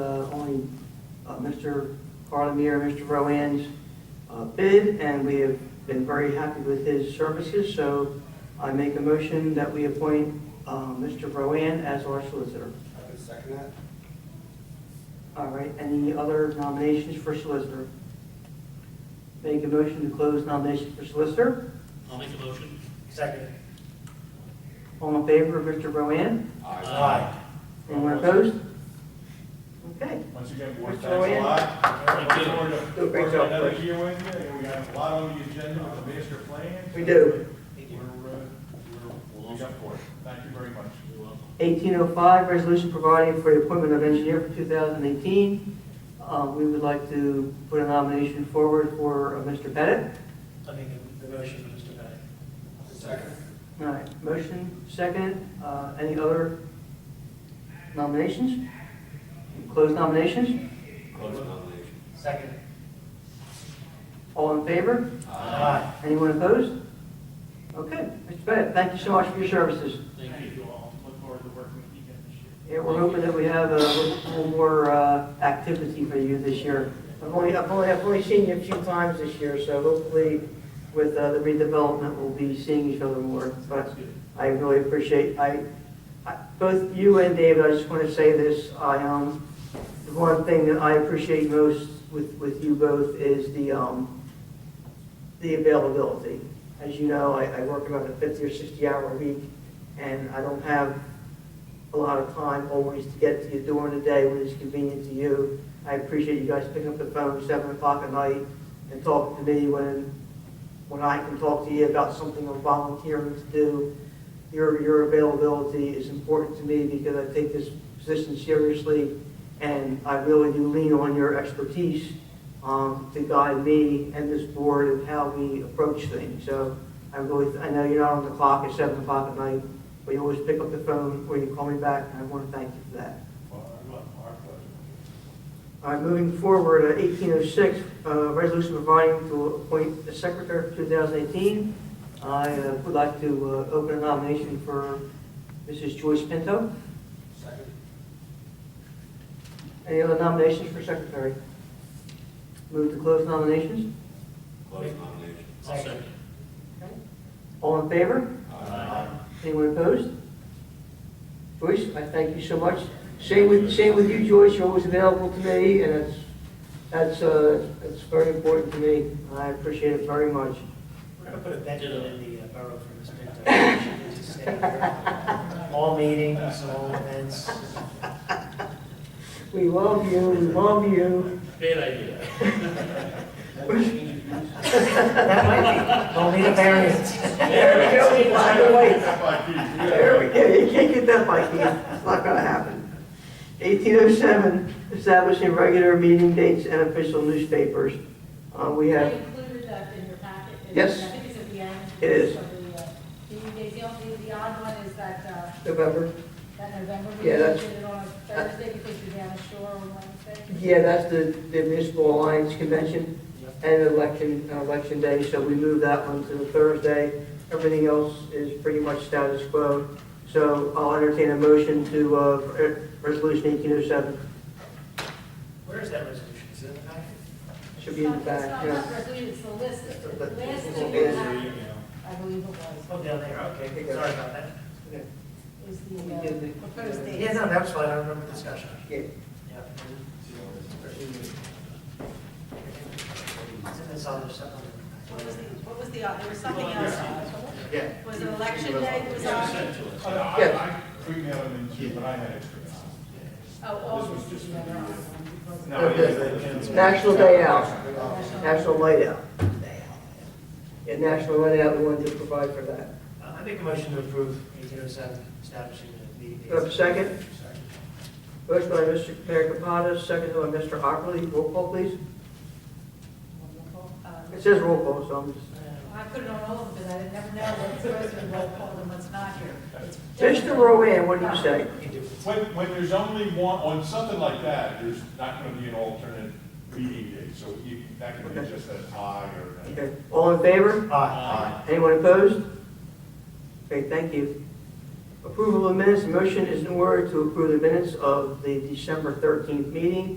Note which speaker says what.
Speaker 1: uh, Mr. Carlemere, Mr. Rowan's uh, bid, and we have been very happy with his services, so I make a motion that we appoint uh, Mr. Rowan as our solicitor.
Speaker 2: I would second that.
Speaker 1: All right, any other nominations for solicitor? Make a motion to close nominations for solicitor.
Speaker 3: I'll make the motion.
Speaker 4: Second.
Speaker 1: All in favor of Mr. Rowan?
Speaker 3: Uh,
Speaker 4: Aye.
Speaker 1: Anyone opposed? Okay.
Speaker 4: Once again, board,
Speaker 1: Mr.
Speaker 4: thanks a
Speaker 1: Rowan?
Speaker 4: lot.
Speaker 3: Thank you.
Speaker 4: Look forward to
Speaker 1: Do a great
Speaker 4: working
Speaker 1: job,
Speaker 4: Another
Speaker 1: please.
Speaker 4: year with you, and we got a lot on the agenda on the master plan.
Speaker 1: We do.
Speaker 4: We're, uh, we're, we got for it. Thank you very much.
Speaker 3: You're welcome.
Speaker 1: 1805, resolution providing for the appointment of engineer for 2018. Uh, We would like to put a nomination forward for uh, Mr. Pettit.
Speaker 5: I mean, the the motion, Mr. Pettit.
Speaker 2: Second.
Speaker 1: All right, motion, second. Uh, Any other nominations? Close nominations?
Speaker 2: Close nomination.
Speaker 5: Second.
Speaker 1: All in favor?
Speaker 5: Aye.
Speaker 1: Anyone opposed? Okay, Mr. Pettit, thank you so much for your services.
Speaker 3: Thank you.
Speaker 4: all. Look forward to working with you again this year.
Speaker 1: Yeah, we're hoping that we have a little more uh, activity for you this year. I've only, I've only, I've only seen you a few times this year, so hopefully with uh, the redevelopment, we'll be seeing each other more. But I really appreciate, I, I- both you and David, I just want to say this, I, um, the one thing that I appreciate most with, with you both is the, um, the availability. As you know, I, I work about a fifty or sixty hour week, and I don't have a lot of time always to get to you during the day when it's convenient to you. I appreciate you guys picking up the phone at seven o'clock at night and talking to me when, when I can talk to you about something I'm volunteering to do. Your, your availability is important to me because I take this position seriously and I really do lean on your expertise um, to guide me and this board in how we approach things. So I really, I know you're not on the clock at seven o'clock at night, but you always pick up the phone or you call me back, and I want to thank you for that.
Speaker 4: Our, our pleasure.
Speaker 1: All right, moving forward, uh, 1806, uh, resolution providing to appoint the secretary for 2018. I uh, would like to uh, open a nomination for Mrs. Joyce Pinto.
Speaker 2: Second.
Speaker 1: Any other nominations for secretary? Move to close nominations.
Speaker 2: Close nomination.
Speaker 3: I'll second.
Speaker 1: All in favor?
Speaker 3: Aye.
Speaker 1: Anyone opposed? Joyce, I thank you so much. Same with, same with you, Joyce, you're always available to me, and it's, that's, uh, that's very important to me. I appreciate it very much.
Speaker 5: We're going to put a benefit in the uh, borough for Ms. Pinto. She can just stay here. All meetings, all events.
Speaker 1: We love you, we love you.
Speaker 3: Bad idea.
Speaker 5: That might be, we'll need a variance.
Speaker 1: There we go, by the way.
Speaker 4: Thank you.
Speaker 1: There we go, you can't get that by hand, it's not gonna happen. 1807, establishing regular meeting dates and official newspapers. Uh, We
Speaker 6: I
Speaker 1: have,
Speaker 6: included that in your packet. and
Speaker 1: Yes.
Speaker 6: I think it's at the end.
Speaker 1: It is.
Speaker 6: of the, uh, meeting days. The only, the odd one is that, uh,
Speaker 1: November,
Speaker 6: that November
Speaker 1: Yeah,
Speaker 6: meeting,
Speaker 1: that's-
Speaker 6: we did it on a Thursday because you're down ashore on Wednesday.
Speaker 1: yeah, that's the the Municipal Alliance Convention and election, uh, election day, so we move that one to the Thursday. Everything else is pretty much status quo. So I'll entertain a motion to, uh, re- Resolution 1807,
Speaker 5: Where is that resolution? Is it in the packet?
Speaker 1: should be in the
Speaker 6: It's not-
Speaker 1: back,
Speaker 6: It's
Speaker 1: yeah.
Speaker 6: not resolution, it's the list.
Speaker 1: It's the-
Speaker 6: The last
Speaker 1: it's
Speaker 6: thing
Speaker 1: the-
Speaker 6: you have, I believe it was,
Speaker 5: Oh, down there, okay, sorry about that.
Speaker 1: Okay.
Speaker 6: is
Speaker 1: We
Speaker 6: the uh,
Speaker 1: did the-
Speaker 6: proposed date.
Speaker 5: Yeah, no, that's fine, I remember the discussion.
Speaker 1: Yeah.
Speaker 5: Yeah. It's in this other supplement.
Speaker 6: What was the, what was the, odd- there was something else.
Speaker 1: Yeah.
Speaker 6: Was it election day that was on?
Speaker 4: Oh, I, I emailed them in too, but I had extra.
Speaker 6: Oh, all
Speaker 4: This was
Speaker 6: of
Speaker 4: just
Speaker 6: these
Speaker 4: for
Speaker 6: are
Speaker 4: the-
Speaker 6: on. because-
Speaker 4: No, it is.
Speaker 1: National Day Out.
Speaker 6: National-
Speaker 1: National Light Out. Yeah, National Light Out, we wanted to provide for that.
Speaker 5: Uh, I make a motion to approve eighteen oh seven, establishing the meeting dates.
Speaker 1: Do I have a second? Motion by Mr. Mayor Kapadas, second by Mr. Ockley. Roll call, please.
Speaker 6: Wonderful. Um,
Speaker 1: It says roll call, so I'm just...
Speaker 6: I put it on all of them, because I didn't never know what's supposed to be roll call and what's not here. It's
Speaker 1: Mr. Rowan, what do you say?
Speaker 5: You can do it.
Speaker 4: When, when there's only one, on something like that, there's not gonna be an alternate meeting day, so you, that could be just a tie or. a-
Speaker 1: Okay. All in favor?
Speaker 5: Aye.
Speaker 1: Anyone opposed? Okay, thank you. Approval of minutes. The motion is in order to approve the minutes of the December 13th meeting.